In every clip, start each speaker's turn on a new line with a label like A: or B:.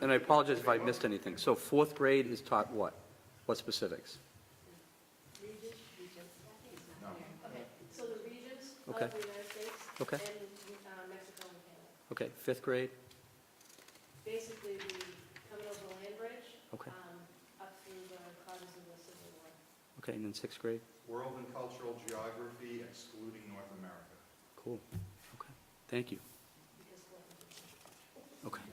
A: and I apologize if I missed anything. So fourth grade is taught what? What specifics?
B: Okay, so the regions of
A: Okay.
B: the United States
A: Okay.
B: and uh, Mexico and Canada.
A: Okay, fifth grade?
B: Basically, the coming over the land bridge
A: Okay,
B: um, up through the causes of the Civil War.
A: okay, and then sixth grade?
C: World and cultural geography excluding North America.
A: Cool, okay, thank you,
B: Because what-
A: okay.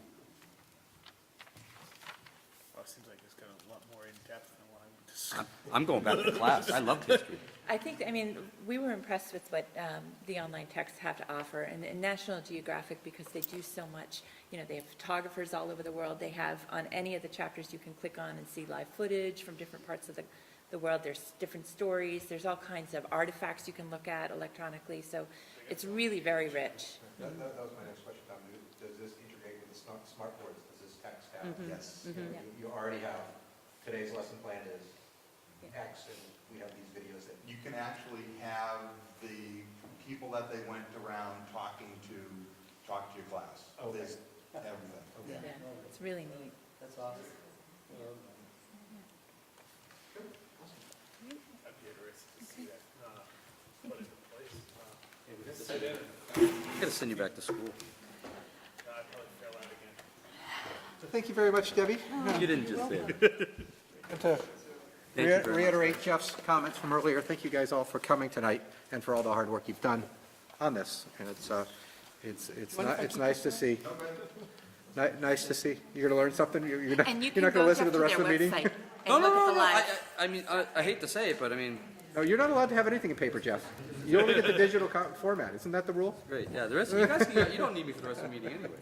D: Well, it seems like it's got a lot more in-depth than what I would just.
A: I'm- I'm going back to class, I loved history.
E: I think, I mean, we were impressed with what um, the online texts have to offer, and and National Geographic, because they do so much, you know, they have photographers all over the world, they have, on any of the chapters, you can click on and see live footage from different parts of the, the world, there's different stories, there's all kinds of artifacts you can look at electronically, so it's really very rich.
F: That, that that was my next question, Tom. Do- Does this integrate with the smart, smart boards? Does this text have?
C: Yes.
F: You know, you- You already have, today's lesson plan is X, and we have these videos that,
C: You can actually have the people that they went around talking to, talk to your class.
F: Okay.
C: There's everything.
E: Yeah, It's really neat.
G: That's awesome. Um,
D: I'd be interested to see that, uh, put into place. Uh,
A: I'm gonna send you back to school.
D: I'd probably fail out again.
G: So thank you very much, Debbie.
A: You didn't just say that.
G: And to
A: Thank you
G: rea-
A: very much.
G: reiterate Jeff's comments from earlier, thank you guys all for coming tonight and for all the hard work you've done on this. And it's, uh, it's, it's, ni- it's nice to see. Ni- Nice to see. You're going to learn something? You're you're not,
E: And you
G: you're
E: can
G: not going
E: go
G: to
E: up
G: listen
E: to
G: to the rest
E: their
G: of the meeting?
E: website
A: No,
E: and
A: no,
E: look at
A: no,
E: the
A: no, I,
E: live.
A: I I mean, I, I hate to say it, but I mean,
G: No, you're not allowed to have anything in paper, Jeff. You only get the digital co- format, isn't that the rule?
A: great, yeah, the rest, you guys, can- you don't need me for the rest of the meeting anyway.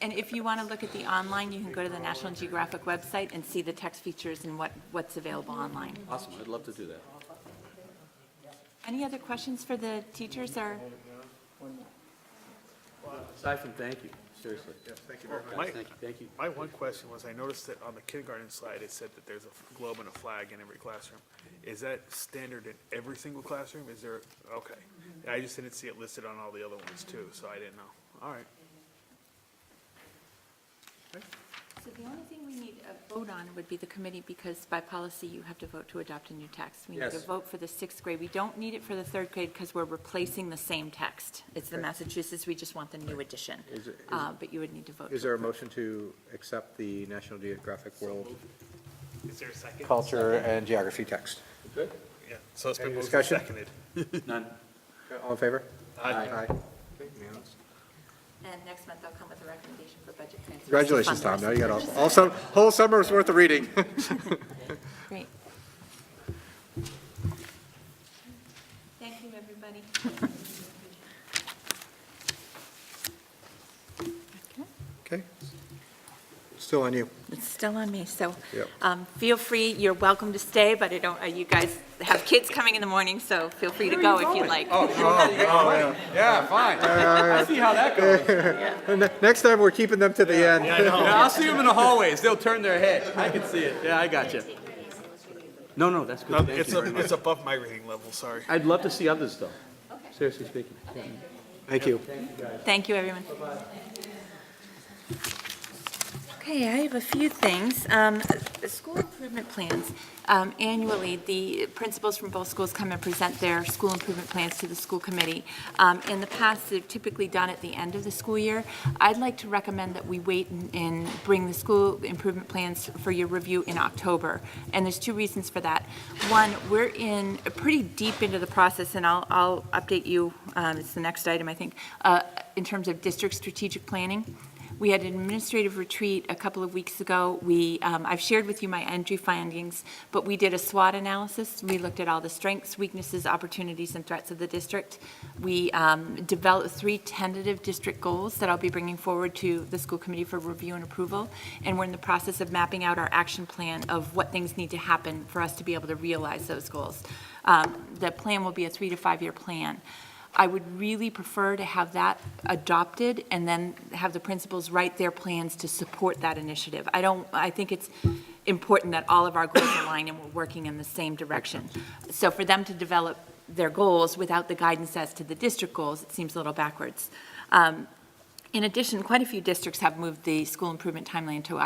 E: And if you want to look at the online, you can go to the National Geographic website and see the text features and what, what's available online.
A: Awesome, I'd love to do that.
E: Any other questions for the teachers or?
A: Aside from thank you, seriously.
G: Thank you very much.
D: My,
A: Thank you, thank you.
D: my one question was, I noticed that on the kindergarten slide, it said that there's a globe and a flag in every classroom. Is that standard in every single classroom? Is there, okay. I just didn't see it listed on all the other ones too, so I didn't know. All right.
E: So the only thing we need a vote on would be the committee, because by policy, you have to vote to adopt a new text. We need to
A: Yes.
E: vote for the sixth grade. We don't need it for the third grade because we're replacing the same text. It's the Massachusetts, we just want the new edition.
G: Is it- is-
E: Uh, But you would need to vote.
G: Is there a motion to accept the National Geographic World
D: Is there a second?
G: Culture and Geography text?
D: Yeah, so it's been
G: Any
D: moved and
G: discussion?
D: seconded.
A: None.
G: All in favor?
D: Aye.
G: Okay, unanimous.
E: And next month, I'll come with a recommendation for budget transfers. to fund
G: Congratulations,
E: the
G: Tom.
E: rest
G: Now
E: of
G: you
E: the
G: got
E: budget.
G: all, all sum, whole summer's worth of reading.
E: Great. Thank you, everybody. Okay.
G: Okay. Still on you.
E: It's still on me, so
G: Yep.
E: um, feel free, you're welcome to stay, but I don't, uh, you guys have kids coming in the morning, so feel free to go if you'd like.
A: Yeah, fine. I see how that goes.
G: Ne- Next time, we're keeping them to the end.
A: Yeah, I'll see them in the hallways, they'll turn their head, I can see it, yeah, I got you. No, no, that's good,
D: No,
A: thank
D: Um, It's,
A: you very
D: a-
A: much.
D: it's above my reading level, sorry.
A: I'd love to see others, though, seriously speaking.
G: Thank you.
E: Thank you, everyone. Okay, I have a few things. Um, the School improvement plans. Um, Annually, the principals from both schools come and present their school improvement plans to the school committee. Um, In the past, they've typically done at the end of the school year. I'd like to recommend that we wait and- and bring the school improvement plans for your review in October. And there's two reasons for that. One, we're in, pretty deep into the process, and I'll, I'll update you, um, it's the next item, I think, uh, in terms of district strategic planning. We had an administrative retreat a couple of weeks ago. We, um, I've shared with you my entry findings, but we did a SWOT analysis. We looked at all the strengths, weaknesses, opportunities, and threats of the district. We um, developed three tentative district goals that I'll be bringing forward to the school committee for review and approval. And we're in the process of mapping out our action plan of what things need to happen for us to be able to realize those goals. Um, The plan will be a three to five-year plan. I would really prefer to have that adopted and then have the principals write their plans to support that initiative. I don't, I think it's important that all of our goals align and we're working in the same direction. So for them to develop their goals without the guidance as to the district goals, it seems a little backwards. Um, In addition, quite a few districts have moved the school improvement timeline to